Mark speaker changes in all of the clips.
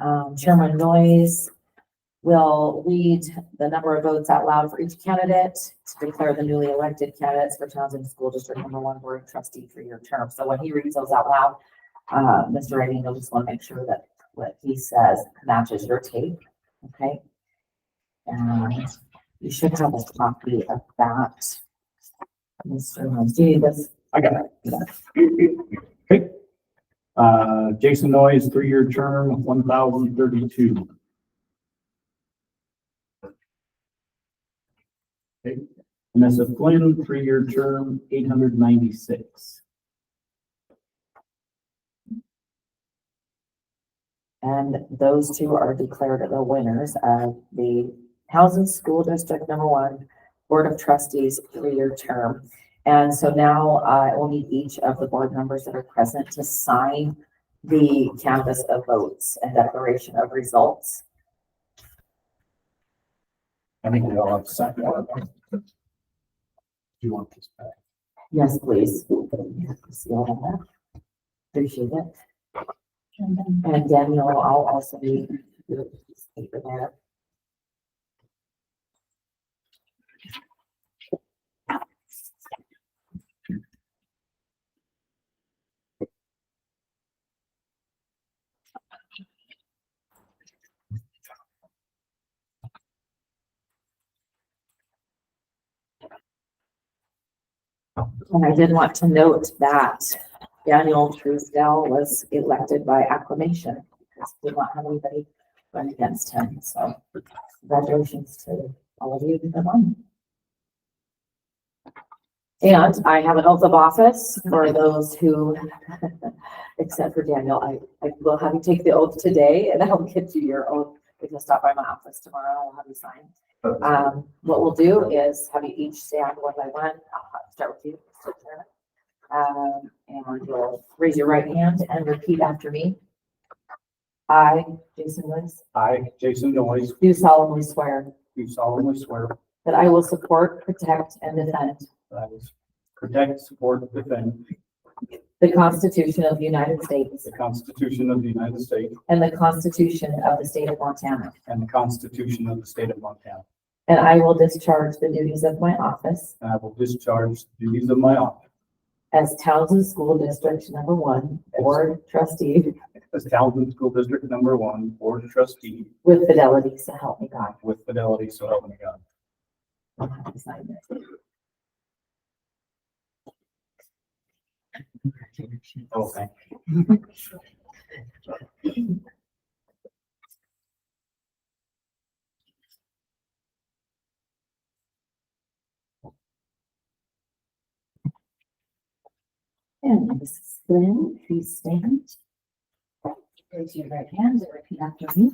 Speaker 1: Um, Chairman Noyes will lead the number of votes out loud for each candidate to declare the newly elected candidates for Townsend School District Number One Board Trustee for your term. So when he reads those out loud, uh, Mr. Reagan, you'll just want to make sure that what he says matches your tape, okay? And you should have a copy of that. Mr. Noyes, do you need this?
Speaker 2: I got it. Okay. Uh, Jason Noyes, three-year term, one thousand thirty-two. Okay. Vanessa Flynn, three-year term, eight hundred ninety-six.
Speaker 1: And those two are declared the winners of the Housing School District Number One Board of Trustees three-year term. And so now uh, I will need each of the board members that are present to sign the canvas of votes and declaration of results.
Speaker 2: I think we all have to sign one. Do you want this back?
Speaker 1: Yes, please. See all that? Appreciate it. And Daniel, I'll also be. paper there. And I did want to note that Daniel Truesdale was elected by acclamation. because We did not have anybody run against him, so congratulations to all of you who have won. And I have an oath of office for those who, except for Daniel, I, I will have you take the oath today and I'll get you your oath. If you stop by my office tomorrow, I'll have you sign. Um, what we'll do is have you each stand one by one. I'll have- start with you. Mr. Chairman. Um, and you'll raise your right hand and repeat after me. I, Jason Woods,
Speaker 2: I, Jason Noyes,
Speaker 1: do solemnly swear
Speaker 2: do solemnly swear
Speaker 1: that I will support, protect, and defend
Speaker 2: that I will protect, support, and defend
Speaker 1: the Constitution of the United States
Speaker 2: the Constitution of the United States
Speaker 1: and the Constitution of the State of Montana,
Speaker 2: and the Constitution of the State of Montana.
Speaker 1: and I will discharge the duties of my office
Speaker 2: And I will discharge the duties of my office
Speaker 1: as Townsend School District Number One Board Trustee
Speaker 2: as Townsend School District Number One Board Trustee
Speaker 1: with fidelity, so help me God.
Speaker 2: with fidelity, so help me God.
Speaker 1: I'll have to sign this.
Speaker 2: Okay.
Speaker 1: And Mrs. Flynn, please stand. Raise your right hand and repeat after me.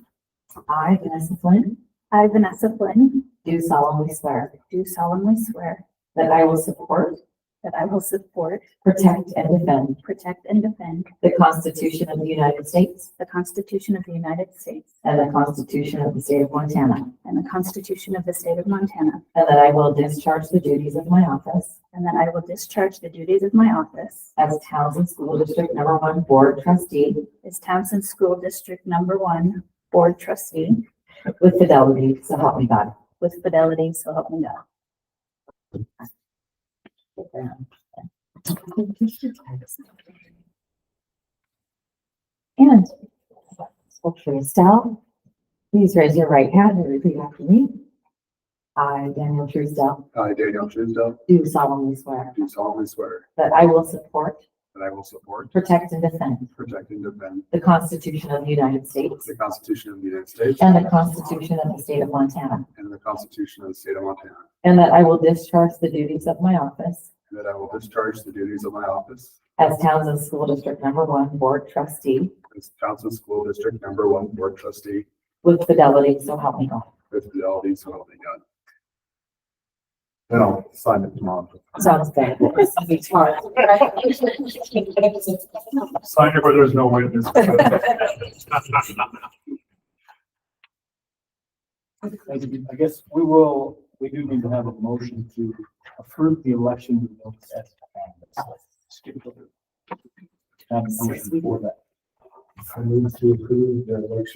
Speaker 1: I, Vanessa Flynn,
Speaker 3: I, Vanessa Flynn,
Speaker 1: do solemnly swear
Speaker 3: do solemnly swear
Speaker 1: that I will support,
Speaker 3: that I will support,
Speaker 1: protect, and defend
Speaker 3: protect, and defend
Speaker 1: the Constitution of the United States
Speaker 3: the Constitution of the United States
Speaker 1: and the Constitution of the State of Montana,
Speaker 3: and the Constitution of the State of Montana,
Speaker 1: and that I will discharge the duties of my office
Speaker 3: and that I will discharge the duties of my office
Speaker 1: as Townsend School District Number One Board Trustee
Speaker 3: as Townsend School District Number One Board Trustee
Speaker 1: with fidelity, so help me God.
Speaker 3: with fidelity, so help me God.
Speaker 1: And Secretary Estelle, please raise your right hand and repeat after me. I, Daniel Truesdale,
Speaker 4: I, Uh, Daniel Truesdale,
Speaker 1: do solemnly swear
Speaker 4: do solemnly swear
Speaker 1: that I will support,
Speaker 4: that I will support,
Speaker 1: protect, and defend
Speaker 4: protect, and defend
Speaker 1: the Constitution of the United States
Speaker 4: the Constitution of the United States
Speaker 1: and the Constitution of the State of Montana,
Speaker 4: and the Constitution of the State of Montana,
Speaker 1: and that I will discharge the duties of my office
Speaker 4: and that I will discharge the duties of my office
Speaker 1: as Townsend School District Number One Board Trustee
Speaker 4: as Townsend School District Number One Board Trustee
Speaker 1: with fidelity, so help me God.
Speaker 4: with fidelity, so help me God. Then I'll sign it tomorrow.
Speaker 1: Sounds good. This will be hard.
Speaker 4: Sign it where there's no witness.
Speaker 2: I guess we will, we do need to have a motion to approve the election results as candidates. Skip over. Have a motion for that.
Speaker 4: I move to approve the election